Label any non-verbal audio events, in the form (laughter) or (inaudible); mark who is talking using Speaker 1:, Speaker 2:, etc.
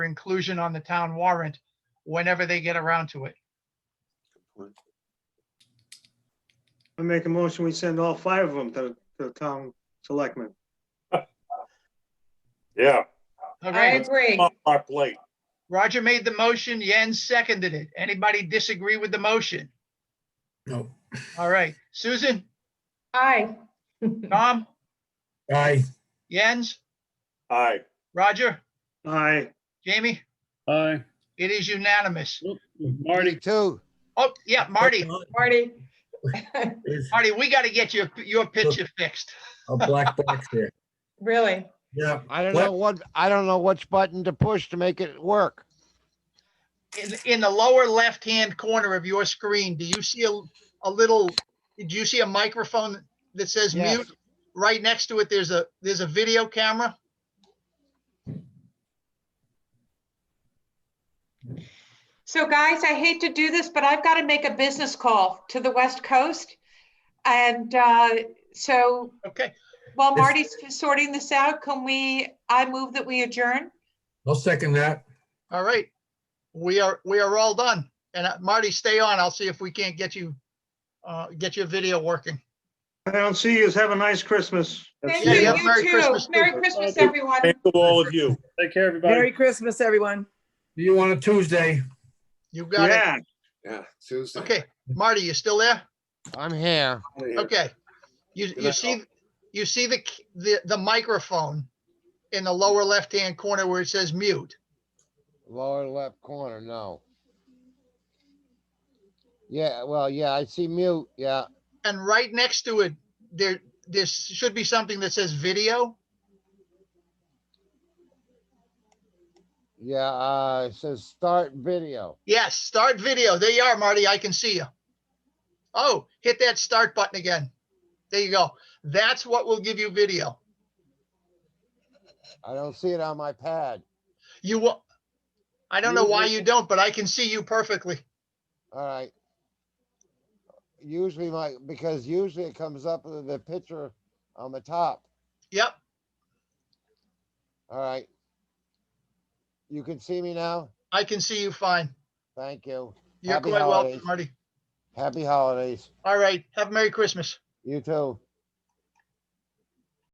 Speaker 1: for inclusion on the town warrant whenever they get around to it.
Speaker 2: I make a motion, we send all five of them to to the town selectmen.
Speaker 3: Yeah,
Speaker 1: All
Speaker 4: I
Speaker 1: right,
Speaker 4: agree.
Speaker 3: off our plate.
Speaker 1: Roger made the motion, Jens seconded it. Anybody disagree with the motion?
Speaker 5: No.
Speaker 1: All right, Susan,
Speaker 4: Aye.
Speaker 1: Tom,
Speaker 5: Aye.
Speaker 1: Jens,
Speaker 3: Aye,
Speaker 1: Roger,
Speaker 2: Aye,
Speaker 1: Jamie,
Speaker 6: Aye.
Speaker 1: it is unanimous.
Speaker 6: Marty,
Speaker 7: Two.
Speaker 1: Oh, yeah, Marty,
Speaker 4: Marty?
Speaker 5: There's
Speaker 1: Marty, we got to get your, your picture fixed.
Speaker 5: A black box (laughs) there.
Speaker 4: Really?
Speaker 5: Yeah.
Speaker 7: I don't know what, I don't know which button to push to make it work.
Speaker 1: In, in the lower left-hand corner of your screen, do you see a, a little, do you see a microphone that says
Speaker 7: Yes.
Speaker 1: mute? Right next to it, there's a, there's a video camera.
Speaker 4: So guys, I hate to do this, but I've got to make a business call to the West Coast. And uh, so
Speaker 1: Okay,
Speaker 4: while
Speaker 5: Yes.
Speaker 4: Marty's sorting this out, can we, I move that we adjourn?
Speaker 5: I'll second that.
Speaker 1: all right. We are, we are all done. And uh, Marty, stay on. I'll see if we can't get you, uh, get your video working.
Speaker 2: I don't see you. Have a nice Christmas.
Speaker 4: Thank
Speaker 1: Yeah,
Speaker 4: you,
Speaker 1: yeah, Merry
Speaker 4: you too.
Speaker 1: Christmas,
Speaker 4: Merry
Speaker 1: too.
Speaker 4: Christmas,
Speaker 3: Thank you.
Speaker 4: everyone.
Speaker 3: thank you, all of you.
Speaker 6: take care, everybody.
Speaker 8: Merry Christmas, everyone.
Speaker 5: See You on a Tuesday.
Speaker 1: You got it.
Speaker 2: Yeah,
Speaker 9: Yeah, Tuesday.
Speaker 1: Okay, Marty, you still there?
Speaker 7: I'm here.
Speaker 1: Okay. You, you
Speaker 9: night,
Speaker 1: see, you see the, k- the, the microphone in the lower left-hand corner where it says mute.
Speaker 7: Lower left corner, no. Yeah, well, yeah, I see mute, yeah.
Speaker 1: And right next to it, there, there should be something that says video.
Speaker 7: Yeah, uh, it says start video.
Speaker 1: Yes, start video. There you are, Marty. I can see you. Oh, hit that start button again. There you go. That's what will give you video.
Speaker 7: I don't see it on my pad.
Speaker 1: You will, I don't know why you don't, but I can see you perfectly.
Speaker 7: All right. Usually my, because usually it comes up with the picture on the top.
Speaker 1: Yep,
Speaker 7: All right. You can see me now?
Speaker 1: I can see you fine.
Speaker 7: Thank you.
Speaker 1: You're
Speaker 7: Happy
Speaker 1: quite welcome,
Speaker 7: holidays.
Speaker 1: Marty.
Speaker 7: Happy holidays.
Speaker 1: All right, have a Merry Christmas.
Speaker 7: You too.